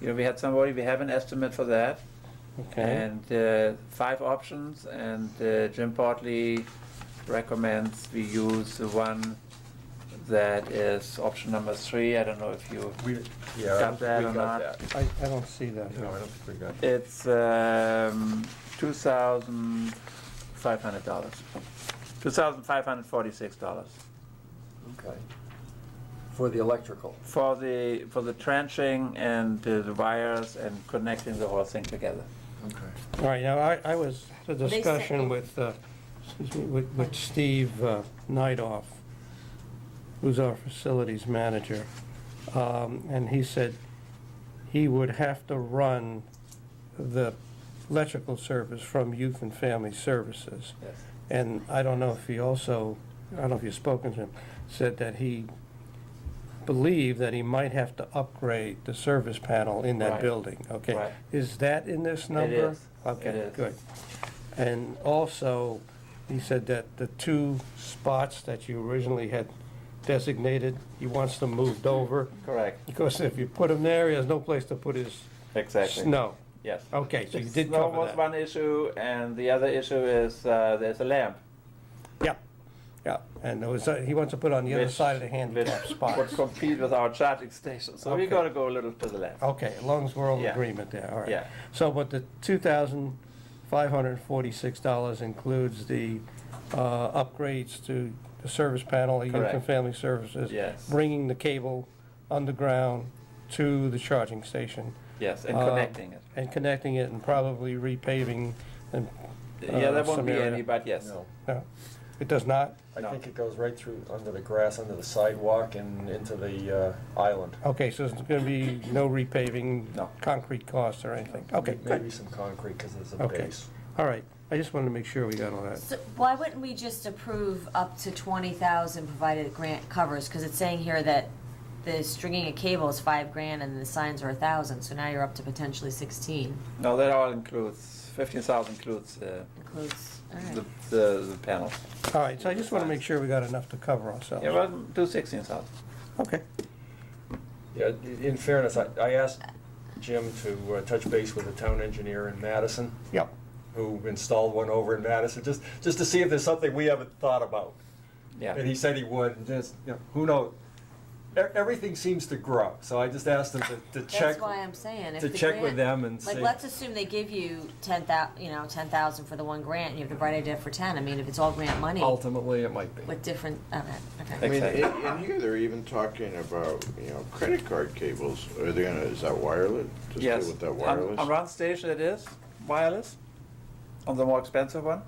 you know, we had somebody, we have an estimate for that. Okay, And uh, five options, and uh, Jim Portley recommends we use the one that is option number three. I don't know if you, We, yeah. Got I don't think that we or got not? that. I, I don't see that. No, I don't think we got that. it's um, $2,500. $2,546 Okay. For the electrical. for the, for the trenching and uh, the wires and connecting the whole thing together. Okay. All right, now, I, I was, the They said- discussion with, uh, excuse me, with, with Steve uh, Nightoff, who's our facilities manager, um, and he said he would have to run the electrical service from Youth and Family Services. Yes. And I don't know if he also, I don't know if you've spoken to him, said that he believed that he might have to upgrade the service panel in that Right. building, okay? Right. Is that in this number? is. It Okay, is. good. And also, he said that the two spots that you originally had designated, he wants them moved over, Correct, because if you put him there, he has no place to put his snow. Yes. Okay, so you Yes. did Snow cover was that. one issue, and the other issue is uh, there's a lamp. Yeah, yeah, and there was, uh, he wants to put it on the other which- side of the handicap which spot. Would compete with our charging station, so we Okay. gotta go a little to the left. Okay, as long as we're all in Yeah. agreement there, all right. Yeah. So, but the two thousand five hundred and forty-six dollars includes the, uh, upgrades to the service panel, the youth and Correct. family services. Yes. Bringing the cable underground to the charging station. Yes, and uh, connecting it. And connecting it and probably repaving and, uh, Yeah, there won't some be area. any, but yes. No, no, it does not? I No. think it goes right through, under the grass, under the sidewalk and into the uh, island. Oh, Okay, so there's gonna be no repaving? No. Concrete costs or anything? Okay, Maybe good, some concrete, because there's a okay. base. All right, I just wanted to make sure we got all that. So why wouldn't we just approve up to twenty thousand provided the grant covers? Because it's saying here that the stringing a cable is five grand and the signs are a thousand, so now you're up to potentially sixteen. No, that all includes, fifteen thousand includes uh, Includes, all the, right. the the panels. All right, so I just want to make sure we got enough to cover ourselves. Yeah, well, do sixteen thousand. Okay. Yeah, i- in fairness, I, I asked Jim to uh, touch base with the town engineer in Madison, Yep. who installed one over in Madison, just, just to see if there's something we haven't thought about. And Yeah, he said he would, and just, you know, who knows? E- Everything seems to grow, so I just asked him to, to check. That's why I'm saying. if to the check with grant- them and Like, see. let's assume they give you ten thou, you know, ten thousand for the one grant, and you have the bright idea for ten. I mean, if it's all grant money Ultimately, it might be. with different, okay, I okay. mean, Exactly. in, in here, they're even talking about, you know, credit card cables, are they gonna, is that wireless? Just go yes. Um, With that On- wireless? On one station it is wireless, on the more expensive one.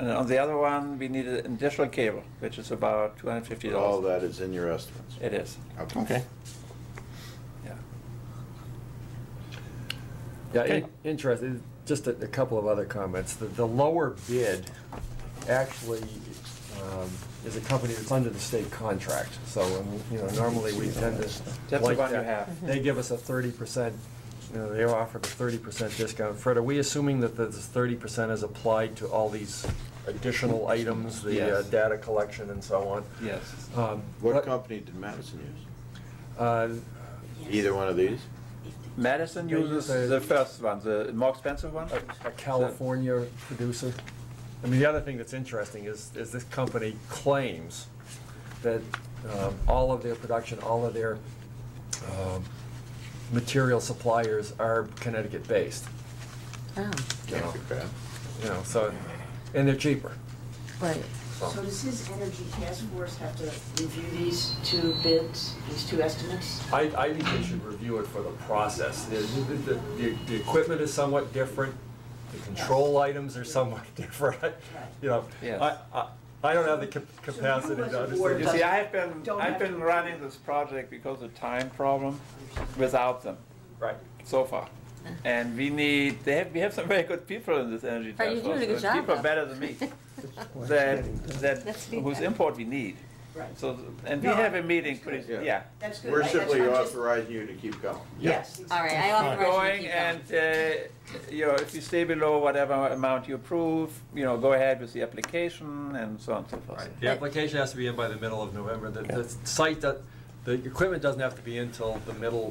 And on the other one, we need an additional cable, which is about two hundred and fifty All dollars. that is in your estimates? It is, Okay. yeah. Yeah, Okay. in- interesting. Just a, a couple of other comments. The, the lower bid actually um, is a company that's under the state contract. So, um, you know, normally we tend to. the like one you that. have. They give us a thirty percent, you know, they offer a thirty percent discount. Fred, are we assuming that this thirty percent is applied to all these additional items, the uh, Yes. data collection and so on? Yes. Um, What but, company did Madison use? uh, Either one of these? Madison They uses use a- the first one, the more expensive one. a- a California producer. I mean, the other thing that's interesting is, is this company claims that um, all of their production, all of their um, material suppliers are Connecticut-based, Oh, Can't be bad. you know, so, and they're cheaper. right. So does his energy task force have to review these two bids, these two estimates? I, I think they should review it for the process. The, the, the, the equipment is somewhat different, the control items are somewhat different, you know. Yes. I, I, I don't have the cap- capacity to as a understand. it. board You see, I've been, Don't I've have been to- running this project because of time problem without them Right. so far. And we need, they have, we have some very good people in this energy Are you task doing force. a good and job, People though? better than me, that, that, That's whose feedback. import we need. Right. So, and we No, have I- a meeting that's pretty, good. yeah. That's good. We're I- that's- simply I'm just- authorizing you to keep going. Yes. All right, I Alright. authorize you to Going keep and, uh, you know, if you stay below whatever amount you approve, you know, go ahead with the application and so on and so forth. The application has to be in by the middle of November. The, the site, that- the equipment doesn't have to be in till the middle